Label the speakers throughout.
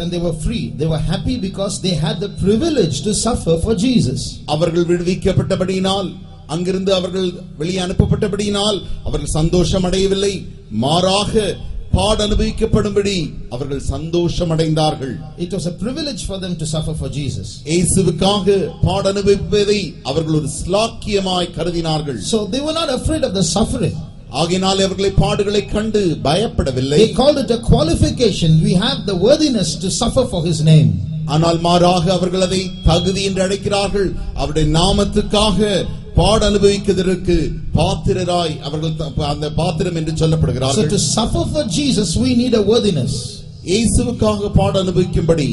Speaker 1: And they were free. They were happy because they had the privilege to suffer for Jesus.
Speaker 2: அவர்கள் விடுவிக்கப்பட்டபடியினால் அங்கிருந்து அவர்கள் வெளியே அனுப்பப்பட்டபடியினால் அவர்கள் சந்தோஷம் அடையவில்லை மாறாக பாட அனுபவிக்கப்படும்படி அவர்கள் சந்தோஷம் அடைந்தார்கள்
Speaker 1: It was a privilege for them to suffer for Jesus.
Speaker 2: இயேசுவுக்காக பாட அனுபவிப்பதை அவர்கள் ஒரு ஸ்லாக்கியமாய் கருதினார்கள்
Speaker 1: So they were not afraid of the suffering.
Speaker 2: ஆகையினால் அவர்களை பாடுகளை கண்டு பயப்படவில்லை
Speaker 1: They called it a qualification. We have the worthiness to suffer for His name.
Speaker 2: ஆனால் மாறாக அவர்கள் அதை தகுதி என்று அழைக்கிறார்கள் அவருடைய நாமத்துக்காக பாட அனுபவிக்கிறதற்கு பாத்திரராய் அவர்கள் த- அந்த பாத்திரம் என்று
Speaker 1: So to
Speaker 2: சொல்லப்படுகிறார்கள்
Speaker 1: suffer for Jesus, we need a worthiness.
Speaker 2: இயேசுவுக்காக பாட அனுபவிக்கும்படி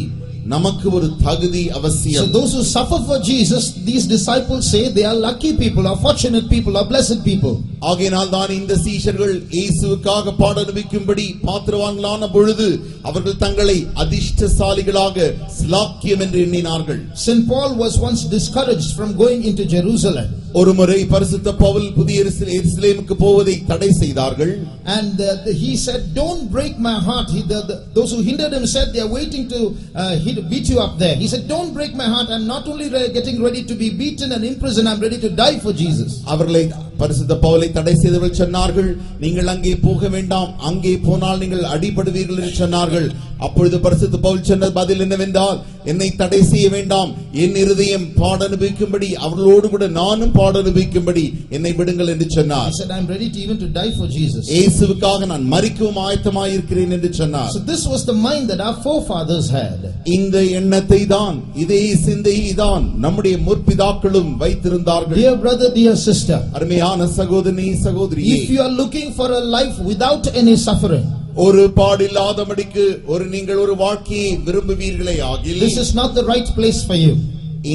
Speaker 2: நமக்கு ஒரு தகுதி
Speaker 1: So
Speaker 2: அவசியம்
Speaker 1: those who suffer for Jesus, these disciples say they are lucky people, are fortunate people, are blessed people.
Speaker 2: ஆகையினால் தான் இந்த சீஷர்கள் இயேசுவுக்காக பாட அனுபவிக்கும்படி பாத்திரவான்களான பொழுது அவர்கள் தங்களை அதிர்ஷ்டசாலிகளாக ஸ்லாக்கியம் என்று எண்ணினார்கள்
Speaker 1: St. Paul was once discouraged from going into Jerusalem.
Speaker 2: ஒருமுறை பரிசுத்த பவுல் புதிய எருசலே- எருசலேமுக்கு போவதை தடை செய்தார்கள்
Speaker 1: And uh, the- he said, Don't break my heart. He, the, the- those who hindered him said, They are waiting to uh, hit, beat you up there. He said, Don't break my heart. I'm not only re- getting ready to be beaten and imprisoned, I'm ready to die for Jesus.
Speaker 2: அவர்களை பரிசுத்த பவுலை தடை செய்தவர்கள் சொன்னார்கள் நீங்கள் அங்கே போக வேண்டாம் அங்கே போனால் நீங்கள் அடிபடுவீர்கள் என்று சொன்னார்கள் அப்பொழுது பரிசுத்த பவுல் சொன்ன பதில் என்னவென்றால் என்னை தடை செய்ய வேண்டாம் என் இருதயம் பாட அனுபவிக்கும்படி அவர்களோடு கூட நானும் பாட அனுபவிக்கும்படி என்னை விடுங்கள் என்று
Speaker 1: He
Speaker 2: சொன்னார்
Speaker 1: said, I'm ready to even to die for Jesus.
Speaker 2: இயேசுவுக்காக நான் மறிக்கவும் ஆயத்தமாயிருக்கிறேன் என்று சொன்னார்
Speaker 1: So this was the mind that our forefathers had.
Speaker 2: இந்த எண்ணத்தை தான் இதே சிந்தையை தான் நம்முடைய முற்பிதாக்களும் வைத்திருந்தார்கள்
Speaker 1: Dear brother, dear sister,
Speaker 2: அருமையான சகோதரி சகோதரியே
Speaker 1: if you are looking for a life without any suffering,
Speaker 2: ஒரு பாடில்லாதபடிக்கு ஒரு நீங்கள் ஒரு வாழ்க்கையை விரும்புவீர்களே ஆகில்
Speaker 1: this is not the right place for you.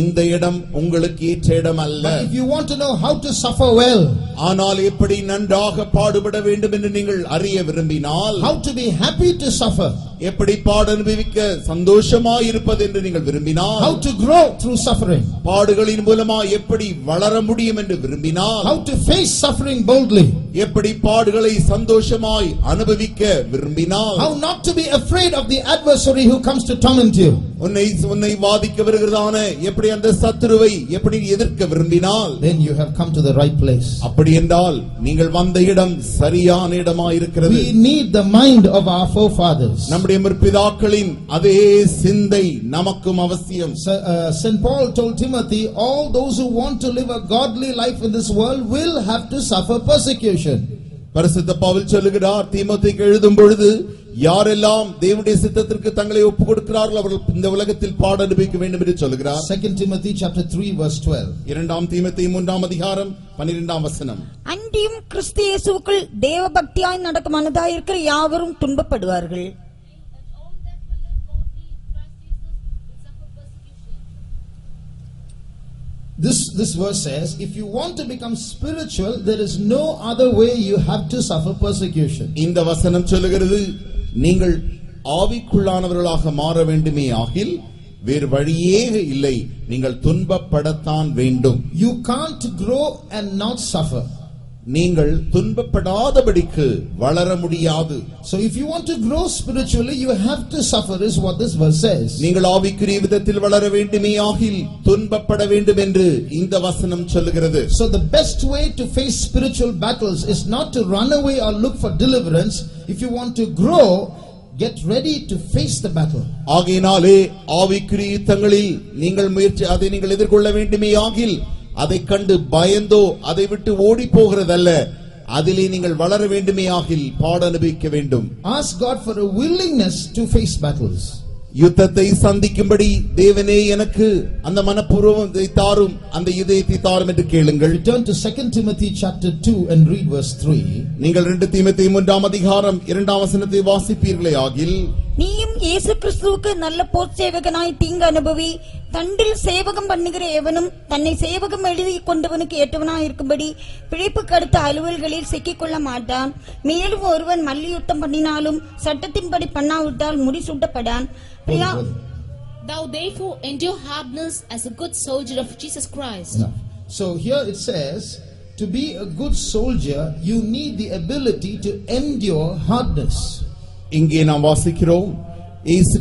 Speaker 2: இந்த இடம் உங்களுக்கு ஏற்ற இடம் அல்ல
Speaker 1: But if you want to know how to suffer well,
Speaker 2: ஆனால் எப்படி நன்றாக பாடுபட வேண்டும் என்று நீங்கள் அறிய விரும்பினால்
Speaker 1: how to be happy to suffer,
Speaker 2: எப்படி பாட அனுபவிக்க சந்தோஷமாய் இருப்பது என்று நீங்கள்
Speaker 1: how
Speaker 2: விரும்பினால்
Speaker 1: to grow through suffering,
Speaker 2: பாடுகளின் மூலமா எப்படி வளர முடியும் என்று விரும்பினால்
Speaker 1: how to face suffering boldly,
Speaker 2: எப்படி பாடுகளை சந்தோஷமாய் அனுபவிக்க விரும்பினால்
Speaker 1: how not to be afraid of the adversary who comes to torment you,
Speaker 2: உன்னை உன்னை வாதிக்க வருகிறதான எப்படி அந்த சத்துருவை எப்படி எதிர்க்க விரும்பினால்
Speaker 1: then you have come to the right place.
Speaker 2: அப்படி என்றால் நீங்கள் வந்த இடம் சரியான இடமா இருக்கிறது
Speaker 1: We need the mind of our forefathers.
Speaker 2: நம்முடைய முற்பிதாக்களின் அதே சிந்தை நமக்கும் அவசியம்
Speaker 1: So, uh, St. Paul told Timothy, all those who want to live a godly life in this world will have to suffer persecution.
Speaker 2: பரிசுத்த பவுல் சொல்லுகிறார் தீமோத்தேயுக்கு எழுதும் பொழுது யாரெல்லாம் தேவனுடைய சித்தத்திற்கு தங்களை ஒப்புக் கொடுக்கிறார்கள் அவர்கள் இந்த உலகத்தில் பாட அனுபவிக்க வேண்டும் என்று சொல்லுகிறார்
Speaker 1: 2 Timothy chapter 3 verse 12.
Speaker 2: இரண்டாம் தீமத்தை மூன்றாம் அதிகாரம் பன்னிரெண்டாம் வசனம்
Speaker 3: அன்றியும் கிறிஸ்து இயேசுவுக்குள் தேவ பக்தியாய் நடக்கும் மனதாயிருக்கிற யாவரும் துன்பப்படுவார்கள்
Speaker 4: and all that will live godly in Christ Jesus will suffer persecution.
Speaker 1: This, this verse says, if you want to become spiritual, there is no other way you have to suffer persecution.
Speaker 2: இந்த வசனம் சொல்லுகிறது நீங்கள் ஆவிக்குள்ளானவர்களாக மாற வேண்டுமே ஆகில் வேறு வழியே இல்லை நீங்கள் துன்பப்படத்தான் வேண்டும்
Speaker 1: You can't grow and not suffer.
Speaker 2: நீங்கள் துன்பப்படாதபடிக்கு வளர முடியாது
Speaker 1: So if you want to grow spiritually, you have to suffer is what this verse says.
Speaker 2: நீங்கள் ஆவிக்குரிய விதத்தில் வளர வேண்டுமே ஆகில் துன்பப்பட வேண்டும் என்று இந்த வசனம் சொல்லுகிறது
Speaker 1: So the best way to face spiritual battles is not to run away or look for deliverance. If you want to grow, get ready to face the battle.
Speaker 2: ஆகையினாலே ஆவிக்குரிய யுத்தங்களில் நீங்கள் முயற்சி அதை நீங்கள் எதிர்கொள்ள வேண்டுமே ஆகில் அதை கண்டு பயந்தோ அதை விட்டு ஓடி போகிறதல்ல அதிலே நீங்கள் வளர வேண்டுமே ஆகில் பாட அனுபவிக்க வேண்டும்
Speaker 1: Ask God for a willingness to face battles.
Speaker 2: யுத்தத்தை சந்திக்கும்படி தேவனே எனக்கு அந்த மனப்பூர்வத்தை தாரும் அந்த இதயத்தை தாரும் என்று கேளுங்கள்
Speaker 1: Return to 2 Timothy chapter 2 and read verse 3.
Speaker 2: நீங்கள் ரெண்டு தீமத்தை மூன்றாம் அதிகாரம் இரண்டாம் வசனத்தை வாசிப்பீர்களே ஆகில்
Speaker 3: நீயும் இயேசு கிறிஸ்துவுக்கு நல்ல போர் சேவகனாய் தீங்கு அனுபவி தண்டில் சேவகம் பண்ணுகிற எவனும் தன்னை சேவகம் எழுதி கொண்டவனுக்கு ஏற்றவனாய் இருக்கும்படி பிழைப்புக்கு அடுத்த அலுவல்களில் சிக்கிக்கொள்ள மாட்டான் மேலும் ஒருவன் மல்யுத்தம் பண்ணினாலும் சட்டத்தின்படி பண்ணாவிட்டால் முடிசூட்டப்படான் Priya
Speaker 4: Thou therefore endure hardness as a good soldier of Jesus Christ.
Speaker 1: Enough. So here it says, to be a good soldier, you need the ability to endure hardness.
Speaker 2: இங்கே நாம் வாசிக்கிறோம் இயேசு